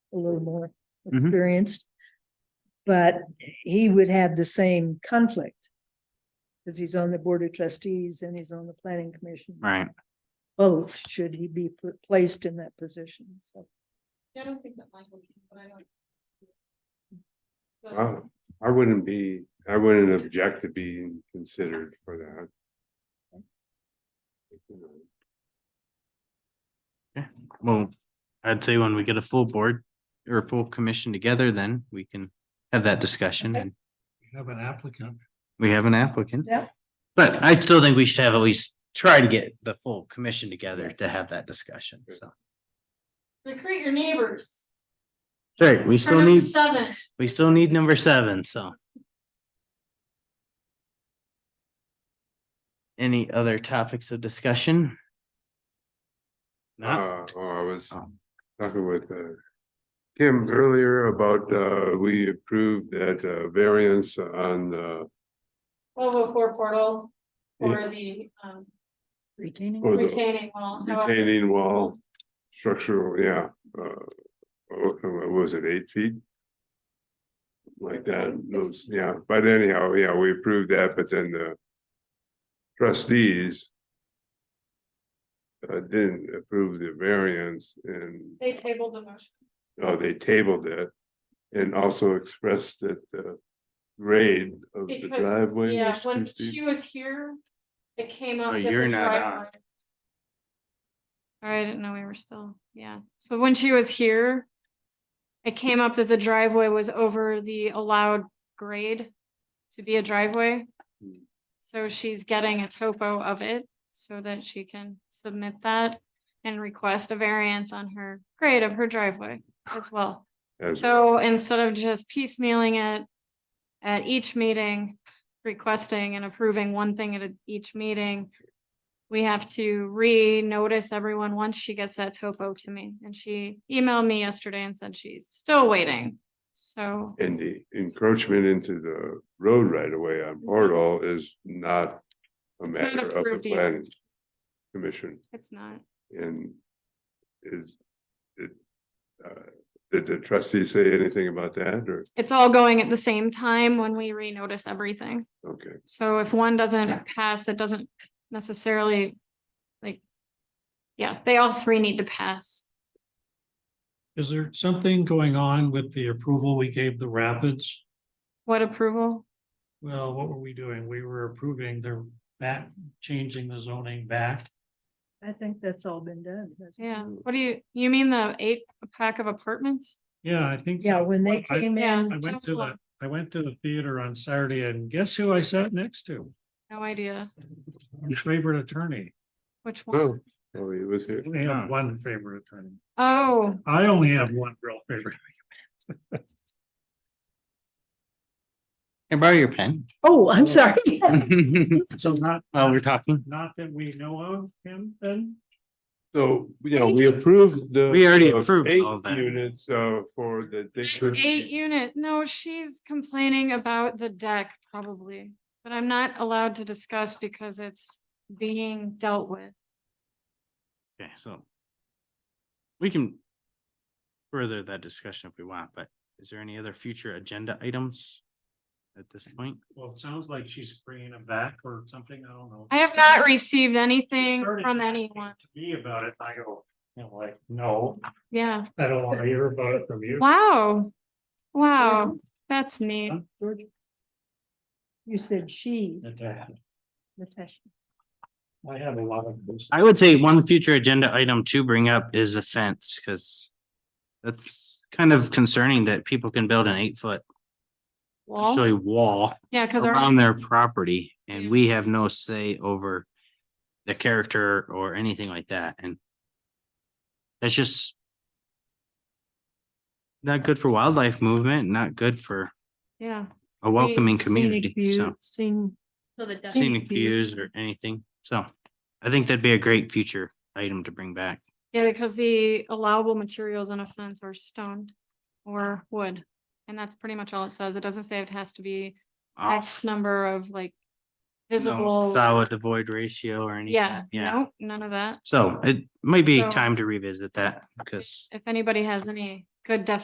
a little more Mhm. experienced. But he would have the same conflict. Because he's on the Board of Trustees and he's on the Planning Commission. Right. Both should he be pl- placed in that position, so. I don't think that Michael, can, but I don't. But- I, I wouldn't be, I wouldn't object to being considered for that. Well, I'd say when we get a full board or a full commission together, then we can have that discussion and Have an applicant. we have an applicant. Yeah. But I still think we should have at least try to get the full commission together to have that discussion. So, Recruit your neighbors. sorry, we still Turn up need, Seven, we still need number seven, so. Any other topics of discussion? Not, Uh, oh, I was Oh. talking with, uh, Kim earlier about, uh, we approved that, uh, variance on, uh, the twelve oh four portal for the um Retaining. For the- retaining wall. however- retaining wall structural, yeah. uh, oh, What was it, eight feet? Like that, those, yeah, but anyhow, yeah, we approved that, but then the trustees uh, didn't approve the variance and, They tabled the motion. oh, they tabled it and also expressed that the grade of the Because, driveway Yeah, was too when steep. she was here, it came up. Oh, that the you're not on. driveway- Sorry, I didn't know we were still, yeah. So when she was here, it came up that the driveway was over the allowed grade to be a driveway. Hmm. So she's getting a topo of it so that she can submit that and request a variance on her grade of her driveway as well. As- So instead of just piecemealing it at each meeting, requesting and approving one thing at a- each meeting, we have to re-notice everyone once she gets that topo to me. And she emailed me yesterday and said she's still waiting. So And the encroachment into the road right away Mm-hmm. on Portal is not a It's not matter of the approved either. planning commission it's not, and is it uh, did the trustees say anything about that or, it's all going at the same time when we re-notice everything. okay, So if one doesn't pass, it doesn't necessarily like, yeah, they all three need to pass. Is there something going on with the approval we gave the Rapids? What approval? Well, what were we doing? We were approving their back, changing the zoning back. I think that's all been done. hasn't it? Yeah, what do you, you mean the eight pack of apartments? Yeah, I think. so. Yeah, when they I- came Yeah. in, I went to the, Council. I went to the theater on Saturday and guess who I sat next to? No idea Your favorite attorney. which oh, one. oh, he was here. I only Huh. have one favorite attorney. Oh, I only have one real favorite. can I borrow your pen? oh, I'm sorry. So not, While we're talking, not that we know of him then? So, you know, we approved the. We already of approved eight all that. Units uh for the. they could- e-, eight unit. No, she's complaining about the deck probably, but I'm not allowed to discuss because it's being dealt with. okay, so. We can. Further that discussion if we want, but is there any other future agenda items? At this point? Well, it sounds like she's bringing him back or something. I don't know. I have not received She anything started from talking anyone. To me about it, and I go, you know, like, no, Yeah. I don't want to hear about it from you. Wow. Wow, that's neat. Huh, George? You said she, I Natasha. uh, have a lot of those. I would say one future agenda item to bring up is a fence, because. That's kind of concerning that people can build an eight foot, Wall, actually wall yeah, because our, around their property Yeah. and we have no say over. The character or anything like that and. That's just. Not good for wildlife movement, not good for yeah, a welcoming Scenic community, so view, scene- So the duck, scenic scenic view. views or anything, so. I think that'd be a great future item to bring back. yeah, because the allowable materials on a fence are stone or wood. And that's pretty much all it says. It doesn't say it has to be Uh, Oh. X number of like visible. Solid to void ratio or anything. Yeah, Yeah, no, none of that. so it might be So- time to revisit that because. If anybody has any good definitions